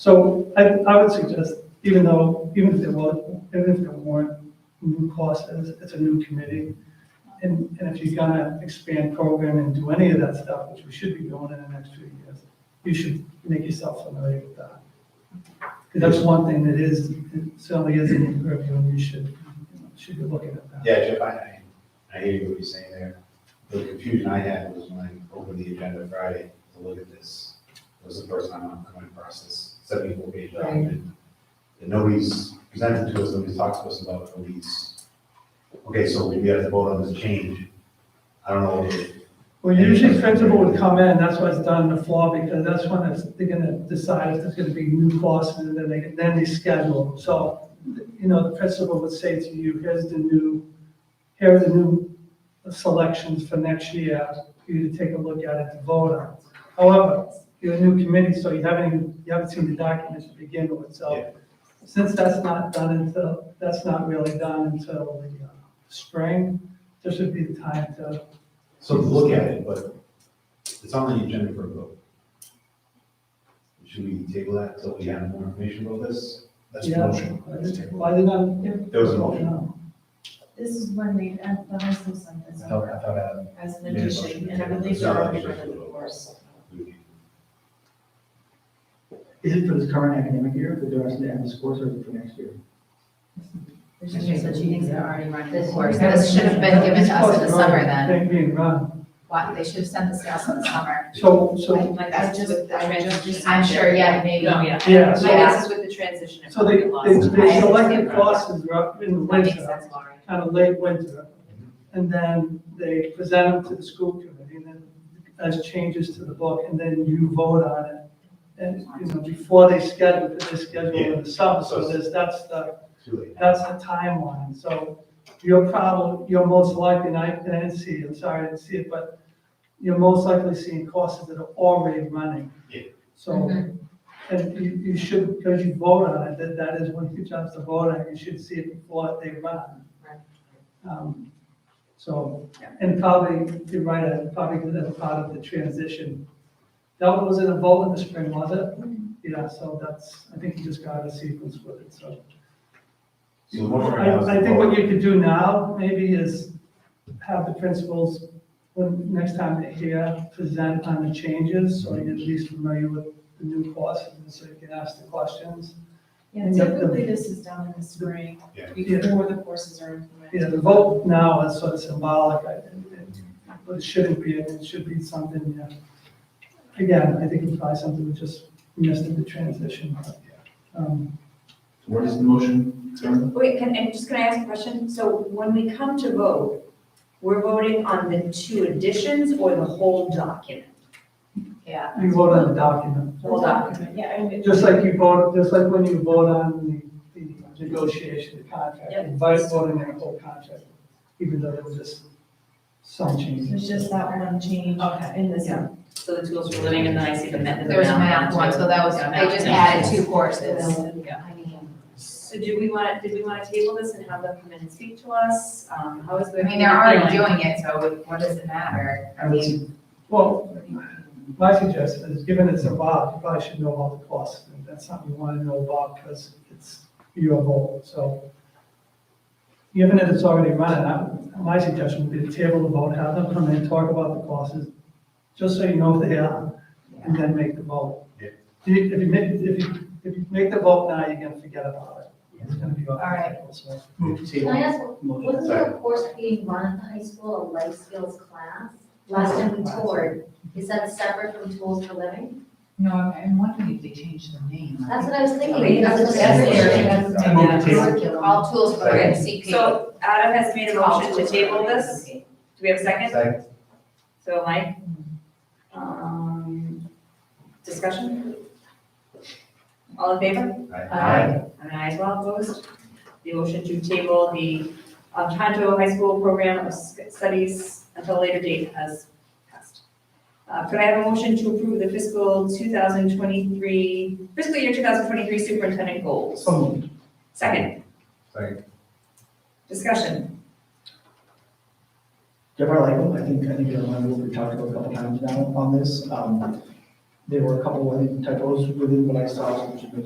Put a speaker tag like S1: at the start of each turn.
S1: So I, I would suggest, even though, even if there was, even if there weren't new costs, it's, it's a new committee. And, and if you're gonna expand program and do any of that stuff, which we should be doing in the next few years, you should make yourself familiar with that. Because that's one thing that is, it certainly is in your purview, and you should, you know, should be looking at that.
S2: Yeah, Jeff, I, I I hear what you're saying there. The confusion I had was when I opened the agenda Friday to look at this. It was the first time I'm coming across this seventy-four page document. And nobody's presented to us, nobody's talked to us about it, nobody's, okay, so we have to vote on this change. I don't know, if-
S1: Well, usually principal would come in, that's why it's done in the fall, because that's when it's, they're gonna decide if there's gonna be new courses, and then they, then they schedule them. So, you know, the principal would say to you, here's the new, here are the new selections for next year, for you to take a look at it to vote on. However, you're a new committee, so you haven't, even- you haven't seen the documents to begin with,
S2: Yeah.
S1: so since that's not done until, that's not really done until the uh, spring, this would be the time to
S2: so to look at it, but it's on the agenda for a vote. Should we table that until we have more information about this?
S3: That's the motion.
S1: Why did I?
S2: There was a motion.
S1: No.
S4: This is when they add the high school sentence
S3: I thought, I thought,
S2: Oh.
S3: uh,
S4: as an
S3: Yeah,
S4: addition, and I believe
S2: It's
S4: they're
S2: not
S4: already
S2: actually
S4: running
S2: a
S4: the
S2: vote.
S4: course.
S2: We-
S5: Is it for this current academic year, the rest of the end of course, or is it for next year?
S4: There's just that she thinks they're already running the
S6: This-
S4: course.
S6: This should have been given to us in the summer then.
S1: They're being run.
S6: Why, they should have sent this to us in the summer.
S1: So, so,
S4: I
S6: Like,
S4: I
S6: that's
S4: just,
S6: with the
S4: I just.
S6: transition.
S4: received
S6: I'm sure,
S4: it.
S6: yeah, maybe.
S7: Oh,
S4: No, yeah.
S1: yeah,
S6: My
S1: so,
S6: guess is with the transition. it
S1: so they,
S6: probably
S1: they,
S6: lost.
S1: they
S6: I-
S1: selected classes up in the
S6: That makes
S1: winter,
S6: sense, Lauren.
S1: kind of late winter. And then they present them to the school committee and then as changes to the book and then you vote on it. And, you know, before they schedule, because they schedule in the summer, so there's, that's the
S2: Too late.
S1: That's the timeline, so you're probably, you're most likely, and I, and I didn't see it, I'm sorry, I didn't see it, but you're most likely seeing courses that are already running.
S2: Yeah.
S1: So, and you, you should, because you vote on it, that, that is one of your jobs to vote on, it, you should see it before they run.
S6: Right.
S1: Um, So, and probably, you're right, I probably as part of the transition. That one was in a vote in the spring, was it? Yeah, so that's, I think you just got a sequence with it, so.
S2: So the motion right now is
S1: I, I
S2: to
S1: think
S2: vote.
S1: what you could do now, maybe, is have the principals, when, next time they're here, present on the changes, so you're at least familiar with the new courses, and so you can ask the questions.
S4: Yeah, typically this is done in the spring,
S2: Yeah.
S4: before the courses are implemented.
S1: Yeah, the vote now is sort of symbolic, I think, and- but it shouldn't be, it should be something, yeah. Again, I think it's probably something we just missed in the transition. Um,
S3: what is the motion? Karen?
S7: Wait, can, and just can I ask a question? So when we come to vote, we're voting on the two additions or the whole document?
S6: Yeah.
S1: You vote on the document,
S7: Whole document.
S4: Yeah, and it-
S1: just like you vote, just like when you vote on the, the negotiation, the contract,
S7: Yep.
S1: you vote voting on the whole contract, even though there was just some changes.
S4: There's just that one change
S7: Okay.
S4: in this.
S1: Yeah.
S7: So the tools for living and then I see the method.
S6: There was a math one, so that was, they just added two courses. I mean,
S7: So do we want, did we want to table this and have them come in and speak to us? Um, how is the?
S6: I mean, they're already
S7: feeling?
S6: doing it, so what does it matter? I mean,
S1: Well, my suggestion is, given it's a VOB, you probably should know all the costs, and that's something you want to know about, because it's your vote, so. Given that it's already running, I, my suggestion would be to table the vote, have them come in, talk about the costs, just so you know what they are, and then make the vote.
S2: Yeah.
S1: If you if you make, if you, if you make the vote now, you're gonna forget about it. It's gonna be off
S6: All
S1: the
S6: right.
S1: table, so.
S6: Can I ask,
S5: Motion.
S6: wasn't there a course being run in the high school, a life skills class? Last time we toured, is that separate from tools for living?
S8: No, I'm- I'm wondering if they changed the name.
S6: That's what I was thinking,
S7: Wait,
S6: because it's
S7: that's-
S6: separate.
S3: I move to table.
S6: All tools for living, CP.
S7: So Adam has made a motion to table this.
S6: Okay.
S7: Do we have a second?
S2: Second.
S7: So Mike? Um, discussion? All in favor?
S2: Aye.
S7: And I as well opposed. The motion to table the um, Tohoto High School Program of Studies until a later date has passed. Uh, Could I have a motion to approve the fiscal 2023, fiscal year 2023 superintendent goals?
S1: So moved.
S7: Second,
S2: Second.
S7: discussion.
S5: Jeff, I like them. I think, I think you're on, we've talked about a couple times now on this. Um, There were a couple of typos within what I saw, which have been